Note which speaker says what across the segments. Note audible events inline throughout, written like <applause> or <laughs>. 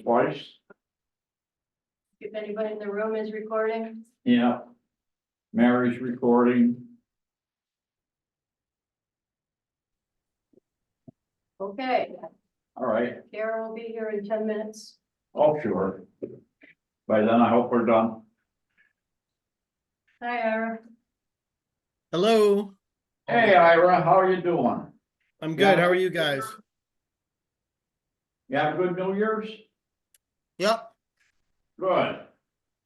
Speaker 1: twice.
Speaker 2: If anybody in the room is recording,
Speaker 1: Yeah. Mary's recording.
Speaker 2: okay,
Speaker 1: All right.
Speaker 2: Kara will be here in ten minutes.
Speaker 1: Oh, sure. By then, I hope we're done.
Speaker 2: Hi, <laughs> Ira.
Speaker 3: Hello,
Speaker 1: Hey, Ira, how are you doing?
Speaker 3: I'm
Speaker 1: Yeah.
Speaker 3: good. How are you guys?
Speaker 1: You have a good New Year's?
Speaker 3: Yep,
Speaker 1: Good,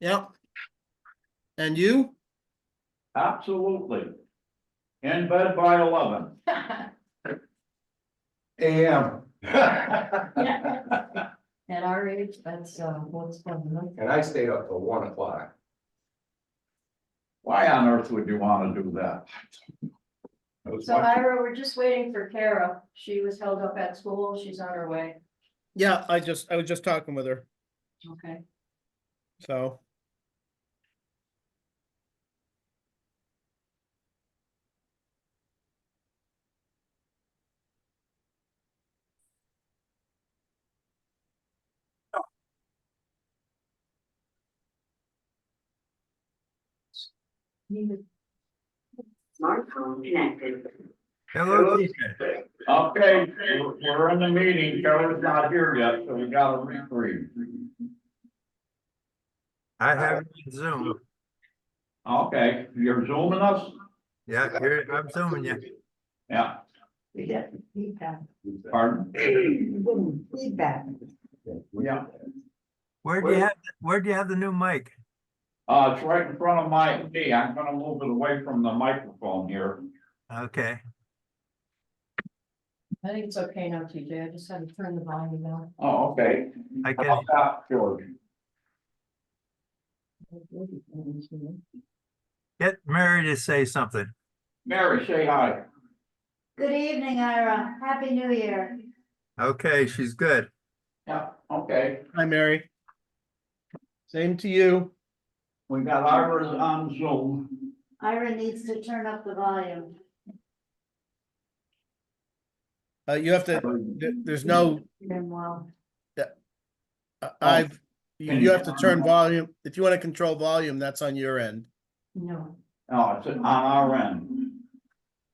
Speaker 3: yep. And you?
Speaker 1: absolutely. In bed by eleven. <laughs>
Speaker 4: AM,
Speaker 1: Yeah,
Speaker 2: At our age, that's uh, what's fun.
Speaker 4: and I stayed up till one o'clock.
Speaker 1: Why on earth would you wanna do that? I was
Speaker 2: So
Speaker 1: watching-
Speaker 2: Ira, we're just waiting for Kara. She was held up at school. She's on her way.
Speaker 3: Yeah, I just, I was just talking with her,
Speaker 2: Okay.
Speaker 3: so.
Speaker 5: Smartphone connected.
Speaker 1: Hello, Okay, we're- we're in the meeting, Carol's not here yet, so we gotta reprieve.
Speaker 6: I have you on Zoom.
Speaker 1: Okay, you're zooming us?
Speaker 6: Yeah, you're- I'm zooming you.
Speaker 1: Yeah,
Speaker 5: We get feedback.
Speaker 1: pardon?
Speaker 5: Feedback.
Speaker 1: Yeah,
Speaker 6: Where do you have, where do you have the new mic?
Speaker 1: uh, it's right in front of my, me, I'm gonna move it away from the microphone here.
Speaker 6: Okay,
Speaker 2: I think it's okay now, TJ. I just had to turn the volume down.
Speaker 1: Oh, okay.
Speaker 6: I
Speaker 1: How
Speaker 6: can,
Speaker 1: about George?
Speaker 6: get Mary to say something.
Speaker 1: Mary, say hi.
Speaker 7: Good evening, Ira. Happy New Year.
Speaker 6: Okay, she's good.
Speaker 1: Yeah, okay,
Speaker 3: Hi, Mary. Same to you.
Speaker 1: we got Ira's on Zoom.
Speaker 7: Ira needs to turn up the volume.
Speaker 3: Uh, you have to,
Speaker 1: Oh,
Speaker 3: there- there's no,
Speaker 7: Been well.
Speaker 3: uh, I've, you
Speaker 1: can
Speaker 3: you
Speaker 1: you-
Speaker 3: have to turn volume. If you want to control volume, that's on your end.
Speaker 7: No.
Speaker 1: Oh, it's on our end,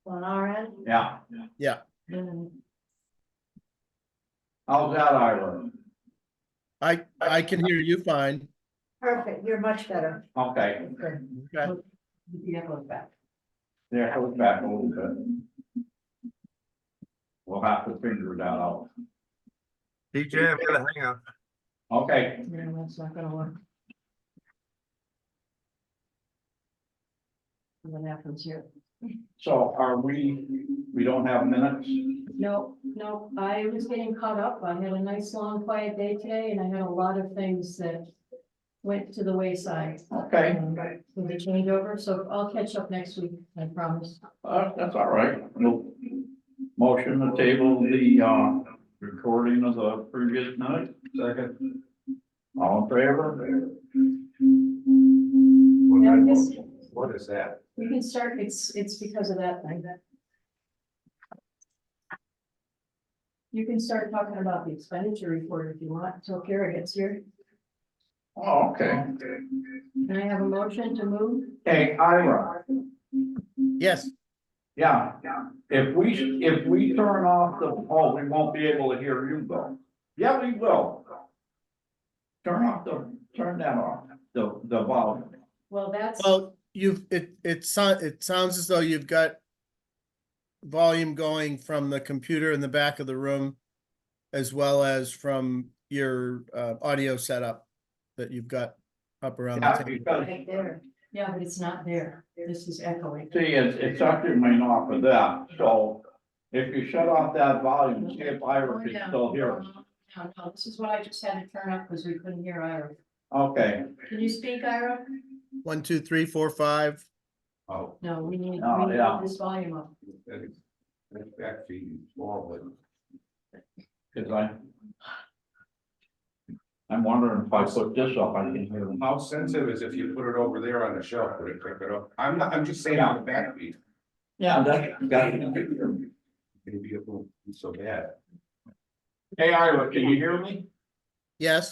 Speaker 7: On our end?
Speaker 1: yeah.
Speaker 7: Mm.
Speaker 1: How's that, Ira?
Speaker 3: I, I can hear you fine.
Speaker 7: Perfect. You're much better.
Speaker 1: Okay,
Speaker 7: Good.
Speaker 3: Okay.
Speaker 7: Yeah, go back.
Speaker 1: there, hold back a little bit. We'll have to figure that out.
Speaker 6: DJ, I'm gonna hang up.
Speaker 1: Okay,
Speaker 7: No, that's not gonna work.
Speaker 2: What happens here?
Speaker 1: So are we, we don't have minutes?
Speaker 2: No, no, I was getting caught up. I had a nice, long, quiet day today and I had a lot of things that went to the wayside. Um,
Speaker 1: Okay,
Speaker 2: With the changeover, so I'll catch up next week, I promise.
Speaker 1: uh, that's all right. No- Motion to table the, uh, recording of the previous night. Second. All in favor?
Speaker 2: Yeah, I guess-
Speaker 4: What is that?
Speaker 2: We can start, it's, it's because of that thing that. You can start talking about the expenditure report if you want, until Kara gets here.
Speaker 1: Oh, okay.
Speaker 2: Can I have a motion to move?
Speaker 1: Hey, Ira,
Speaker 3: Yes,
Speaker 1: yeah, if we, if we turn off the, oh, we won't be able to hear you though. Yeah, we will. Turn off the, turn that off, the, the volume.
Speaker 2: Well, that's,
Speaker 3: well, you've, it, it sounds, it sounds as though you've got volume going from the computer in the back of the room as well as from your, uh, audio setup that you've got up around the
Speaker 1: Yeah,
Speaker 3: table.
Speaker 1: because
Speaker 7: Right there.
Speaker 2: yeah, but it's not there. This is echoing.
Speaker 1: See, it's, it's actually made off of that, so if you shut off that volume, see if Ira can still hear us.
Speaker 2: Oh, No, no, this is what I just had to turn up because we couldn't hear Ira.
Speaker 1: Okay,
Speaker 2: Can you speak, Ira?
Speaker 3: One, two, three, four, five.
Speaker 4: Oh,
Speaker 2: No, we need, we
Speaker 1: Oh,
Speaker 2: need
Speaker 1: yeah.
Speaker 2: this volume up.
Speaker 4: that is, that's back to you, small,
Speaker 1: cause I. I'm wondering if I put this up, I can hear
Speaker 4: but
Speaker 1: them.
Speaker 4: how sensitive is if you put it over there on the shelf, would it pick it up? I'm not, I'm just saying on the back beat.
Speaker 1: Yeah, that,
Speaker 4: Maybe it won't be so bad.
Speaker 1: Hey, Ira, can you hear me?
Speaker 3: Yes?